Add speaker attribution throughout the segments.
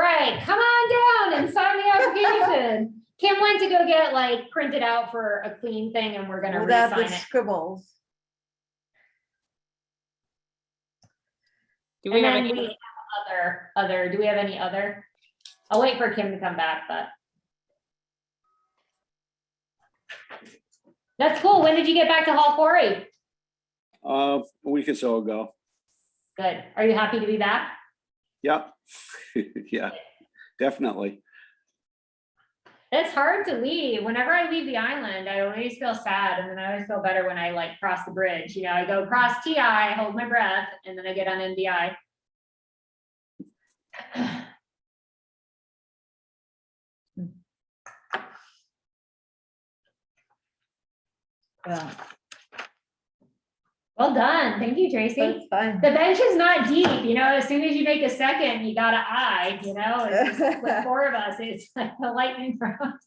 Speaker 1: like, come on down and sign the application. Kim went to go get it like printed out for a clean thing and we're gonna
Speaker 2: Without the
Speaker 1: re-sign it.
Speaker 2: scribbles.
Speaker 3: Do we
Speaker 1: And
Speaker 3: have
Speaker 1: then
Speaker 3: any,
Speaker 1: we have other, other, do we have any other? I'll wait for Kim to come back, but. That's cool. When did you get back to Hall Quarry?
Speaker 4: Uh, a week or so ago.
Speaker 1: Good. Are you happy to be back?
Speaker 4: Yep. Yeah, definitely.
Speaker 1: It's hard to leave. Whenever I leave the island, I always feel sad and then I always feel better when I like cross the bridge. You know, I go across TI, I hold my breath, and then I get on NDI.
Speaker 2: Yeah,
Speaker 1: Well done. Thank you, Tracy.
Speaker 2: that's fine.
Speaker 1: The bench is not deep, you know, as soon as you make a second, you got an eye, you know, it's just with four of us, it's like a lightning round.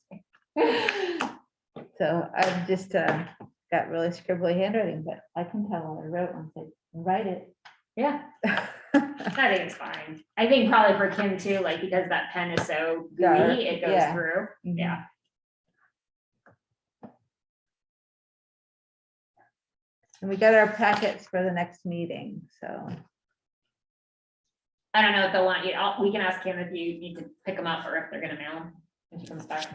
Speaker 2: So I've just uh, got really scribbly handwriting, but I can tell what I wrote once I write it.
Speaker 1: Yeah, I think it's fine. I think probably for Kim too, like because that pen is so
Speaker 2: Dark,
Speaker 1: gooey, it goes
Speaker 2: yeah.
Speaker 1: through. Yeah.
Speaker 2: And we got our packets for the next meeting, so.
Speaker 1: I don't know if they'll want you, I'll, we can ask Kim if you need to pick them up or if they're gonna mail them. when she comes back.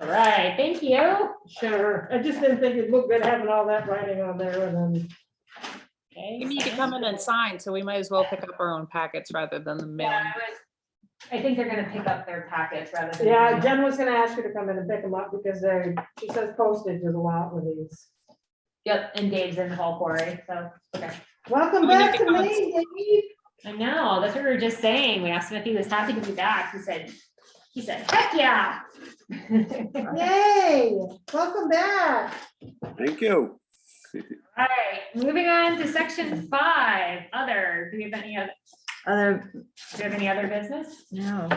Speaker 1: All right, thank you.
Speaker 5: Sure, I just didn't think it looked good having all that writing on there and then,
Speaker 1: Okay.
Speaker 3: you need to come in and sign, so we might as well pick up our own packets rather than the
Speaker 1: Yeah,
Speaker 3: mailing.
Speaker 1: I was, I think they're gonna pick up their packets rather than.
Speaker 5: yeah, Jen was gonna ask you to come in and pick them up because they, she says postage is a lot with these.
Speaker 1: Yep, and Dave's in the hall quarry, so, okay.
Speaker 5: Welcome
Speaker 3: We need
Speaker 5: back
Speaker 3: to
Speaker 5: to
Speaker 3: come
Speaker 5: me, Dave.
Speaker 1: I know, that's what we were just saying. We asked him if he was happy to be back. He said, he said, heck yeah. All
Speaker 5: Yay, welcome back.
Speaker 4: Thank you.
Speaker 1: right, moving on to section five, other, do we have any other,
Speaker 2: Other,
Speaker 1: do you have any other business?
Speaker 2: no,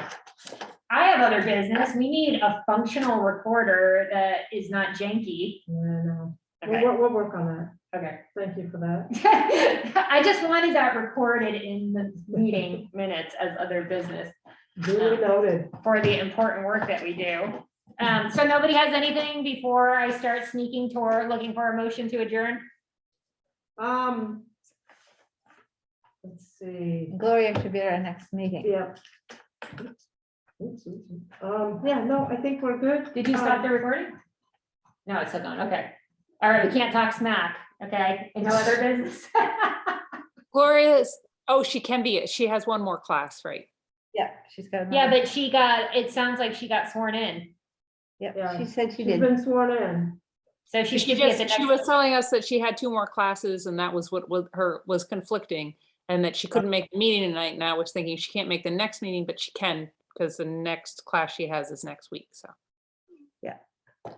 Speaker 1: I have other business. We need a functional recorder that is not janky.
Speaker 5: Yeah, I know. We'll,
Speaker 1: Okay,
Speaker 5: we'll- we'll work on that.
Speaker 1: okay.
Speaker 5: Thank you for that.
Speaker 1: I just wanted that recorded in the meeting minutes as other business.
Speaker 5: Duly noted.
Speaker 1: for the important work that we do. Um, so nobody has anything before I start sneaking toward looking for a motion to adjourn?
Speaker 5: Um. Let's see.
Speaker 2: Gloria should be at our next meeting.
Speaker 5: Yeah. Oops, oops, oops. Um, yeah, no, I think we're good. Um,
Speaker 1: Did you stop
Speaker 3: Um,
Speaker 1: the recording? No, it's still going, okay. All right, we can't talk smack, okay? And no other business?
Speaker 3: Gloria is, oh, she can be, she has one more class, right?
Speaker 2: Yeah, she's got.
Speaker 1: Yeah,
Speaker 2: another-
Speaker 1: but she got, it sounds like she got sworn in.
Speaker 2: Yeah, she said she
Speaker 5: She's
Speaker 2: did.
Speaker 5: been sworn in.
Speaker 1: So she
Speaker 3: She
Speaker 1: should get the
Speaker 3: just, she was
Speaker 1: next.
Speaker 3: telling us that she had two more classes and that was what was her, was conflicting. And that she couldn't make the meeting tonight and I was thinking she can't make the next meeting, but she can because the next class she has is next week, so.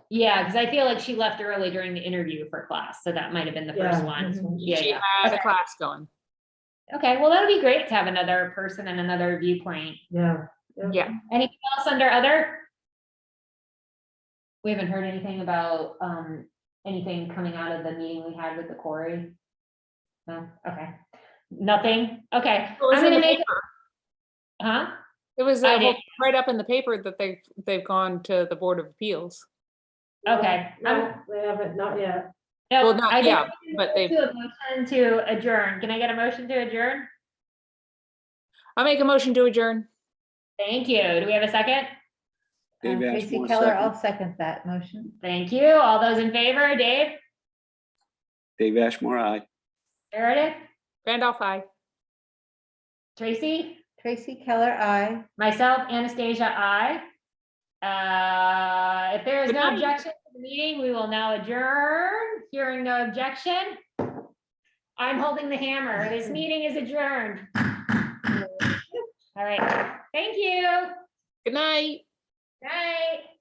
Speaker 1: Yeah, because I feel like she left early during the interview for class, so that might have been the first
Speaker 5: Yeah.
Speaker 1: one.
Speaker 2: Mhm.
Speaker 1: Yeah,
Speaker 3: She
Speaker 1: yeah.
Speaker 3: had
Speaker 1: Okay.
Speaker 3: a class going.
Speaker 1: Okay, well, that'd be great to have another person and another viewpoint.
Speaker 5: Yeah.
Speaker 3: Yeah.
Speaker 1: Anything else under other? We haven't heard anything about, um, anything coming out of the meeting we had with the quarry? No, okay, nothing, okay,
Speaker 3: It was
Speaker 1: I'm
Speaker 3: in
Speaker 1: gonna
Speaker 3: the
Speaker 1: make-
Speaker 3: paper.
Speaker 1: huh?
Speaker 3: It was
Speaker 1: I
Speaker 3: uh,
Speaker 1: did.
Speaker 3: right up in the paper that they've, they've gone to the Board of Appeals.
Speaker 1: Okay, Um,
Speaker 5: No, they haven't, not yet.
Speaker 1: No,
Speaker 3: Well, not-
Speaker 1: I didn't
Speaker 3: yeah, but they-
Speaker 1: do a motion To adjourn, can I get a motion to adjourn?
Speaker 3: I'll make a motion to adjourn.
Speaker 1: Thank you, do we have a second?
Speaker 2: Uh,
Speaker 4: Dave
Speaker 2: Tracy
Speaker 4: Ashmore,
Speaker 2: Keller,
Speaker 4: second.
Speaker 2: I'll second that motion.
Speaker 1: Thank you, all those in favor, Dave,
Speaker 4: Dave Ashmore, aye.
Speaker 1: Meredith,
Speaker 3: Randolph, I.
Speaker 1: Tracy,
Speaker 2: Tracy Keller, I.
Speaker 1: myself, Anastasia, I. Uh, if there is
Speaker 3: Good
Speaker 1: no
Speaker 3: night.
Speaker 1: objection to the meeting, we will now adjourn. Hearing no objection. I'm holding the hammer. This meeting is adjourned. All right. Thank you.
Speaker 3: Good night.
Speaker 1: Night.